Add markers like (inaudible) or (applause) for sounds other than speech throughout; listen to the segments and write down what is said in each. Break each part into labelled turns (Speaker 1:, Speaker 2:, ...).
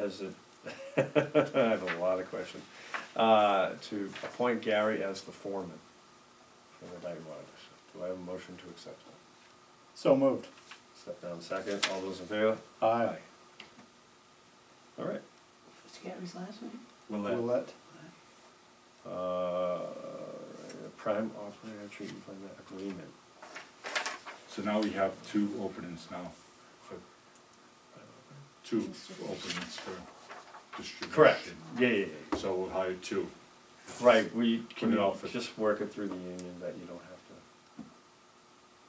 Speaker 1: as a, (laughs) I have a lot of questions, uh, to appoint Gary as the foreman for the night watch. Do I have a motion to accept that?
Speaker 2: So moved.
Speaker 1: Step down second, all those in favor?
Speaker 2: Aye.
Speaker 1: All right.
Speaker 3: What's Gary's last name?
Speaker 1: Willett,
Speaker 2: Roulette.
Speaker 1: uh, prime operator treatment plan agreement.
Speaker 4: So now we have two openings now, for two openings for distribution.
Speaker 1: Correct, yeah, yeah, yeah.
Speaker 4: So we'll hire two.
Speaker 1: Right, we can
Speaker 4: Put it out for-
Speaker 1: just work it through the union that you don't have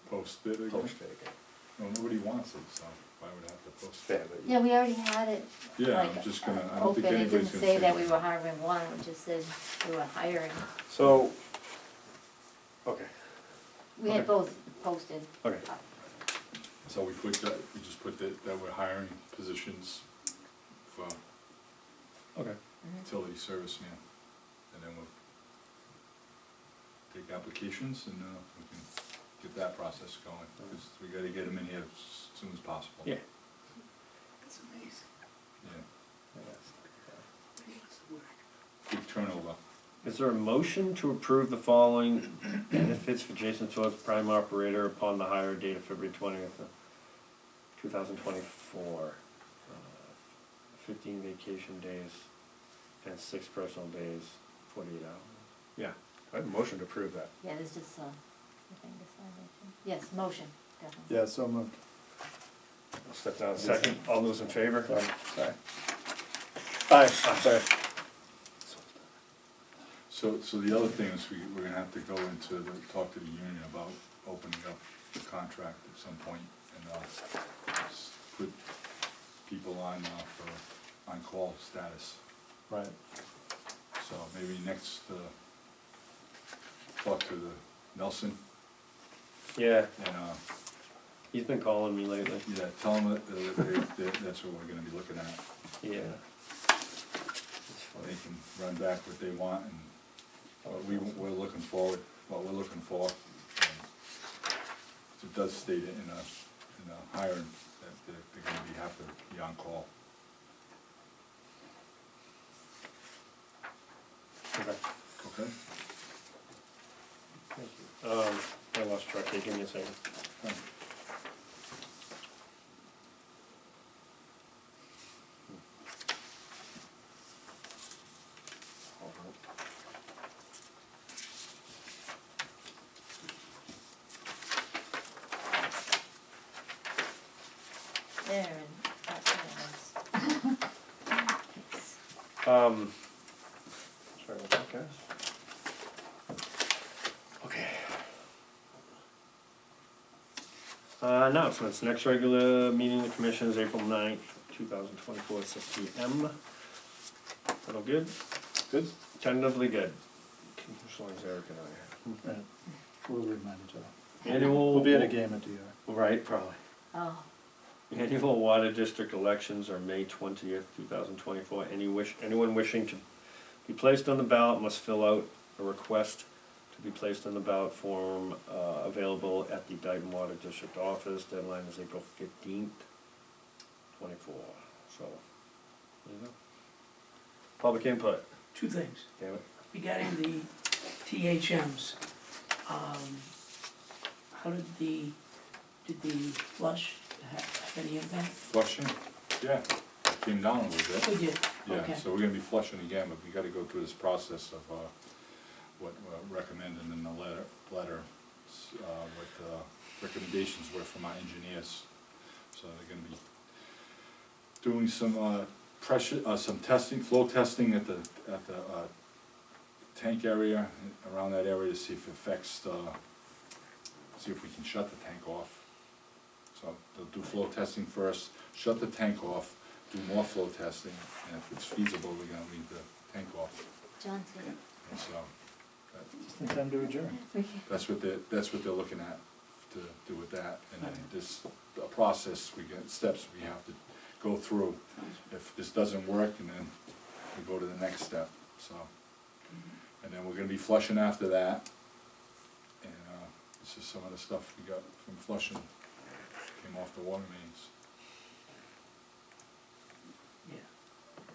Speaker 4: Post it
Speaker 1: to
Speaker 4: again.
Speaker 1: post it again.
Speaker 4: No, nobody wants it, so why would I have to post
Speaker 1: Fair,
Speaker 4: it?
Speaker 1: but you-
Speaker 5: Yeah, we already had it.
Speaker 4: Yeah, I'm
Speaker 5: like,
Speaker 4: just gonna, I don't
Speaker 5: Open,
Speaker 4: think
Speaker 5: it didn't
Speaker 4: anybody's gonna
Speaker 5: say
Speaker 4: say
Speaker 5: that we were hiring one, it just said we were hiring.
Speaker 1: So, okay,
Speaker 5: We had
Speaker 1: Okay.
Speaker 5: both posted.
Speaker 1: okay,
Speaker 4: So we put that, we just put that, that we're hiring positions for
Speaker 1: okay.
Speaker 4: utility serviceman. And then we'll take applications and, uh, we can get that process going, because we gotta get them in here as soon as possible.
Speaker 1: Yeah.
Speaker 3: That's amazing.
Speaker 4: Yeah,
Speaker 3: He wants to work.
Speaker 4: big turnover.
Speaker 1: Is there a motion to approve the following benefits for Jason Schwartz, prime operator, upon the hire date of February twentieth, two thousand twenty-four? Uh, Fifteen vacation days and six personal days, forty-eight hours. Yeah, I have a motion to approve that.
Speaker 5: Yeah, there's just a, I think this one, I think. yes, motion, definitely.
Speaker 2: Yeah, so moved.
Speaker 1: I'll step down a second. All those in favor?
Speaker 2: Sorry. Aye, sorry.
Speaker 4: So, so the other thing is we, we're gonna have to go into the, talk to the union about opening up the contract at some point and, uh, s- put people on, uh, for on-call status.
Speaker 2: Right.
Speaker 4: So maybe next, uh, talk to the Nelson
Speaker 1: Yeah,
Speaker 4: and, uh,
Speaker 1: he's been calling me lately.
Speaker 4: yeah, tell them that, that, they- that, that's what we're gonna be looking at.
Speaker 1: Yeah.
Speaker 4: They can run back what they want and
Speaker 1: Uh,
Speaker 4: what Uh, we, we're looking forward, what we're looking for. and It does state it in a, in a hiring that they're, they're gonna be, have to be on call.
Speaker 1: Okay.
Speaker 4: Okay?
Speaker 1: Thank you. Um, I lost track, here, give me a second.
Speaker 4: Fine.
Speaker 5: There and that's what it was.
Speaker 1: Um, sorry about that, guys. Okay. Uh, announcements, next regular meeting of the commission is April ninth, two thousand twenty-four, six P M. That all good?
Speaker 4: Good.
Speaker 1: Tentatively good. As long as Eric and I
Speaker 2: Right. We'll remind each other.
Speaker 1: are. Annual.
Speaker 2: We'll be at a game at DR.
Speaker 1: Right, probably.
Speaker 5: Oh,
Speaker 1: Annual water district elections are May twentieth, two thousand twenty-four. Any wish, anyone wishing to be placed on the ballot must fill out a request to be placed on the ballot form, uh, available at the Dayton Water District office. Deadline is April fifteenth, twenty-four, so, there you go. Public input,
Speaker 3: Two things,
Speaker 1: damn it.
Speaker 3: regarding the THMs, um, how did the, did the flush ha- have any impact?
Speaker 4: Flushing, yeah, came down a little bit.
Speaker 3: Oh, yeah,
Speaker 4: Yeah,
Speaker 3: okay.
Speaker 4: so we're gonna be flushing again, but we gotta go through this process of, uh, what, uh, recommended in the letter, letter, s- uh, what, uh, recommendations were from our engineers. So they're gonna be doing some, uh, pressure, uh, some testing, flow testing at the, at the, uh, tank area, around that area to see if it affects, uh, see if we can shut the tank off. So they'll do flow testing first, shut the tank off, do more flow testing, and if it's feasible, we're gonna leave the tank off.
Speaker 5: John's here.
Speaker 4: And so, that-
Speaker 2: Just in time to adjourn.
Speaker 5: We can-
Speaker 4: that's what they're, that's what they're looking at to do with that. And then this, the process, we get steps we have to go through. If this doesn't work, and then we go to the next step, so. And then we're gonna be flushing after that. And, uh, this is some of the stuff we got from flushing, came off the water mains.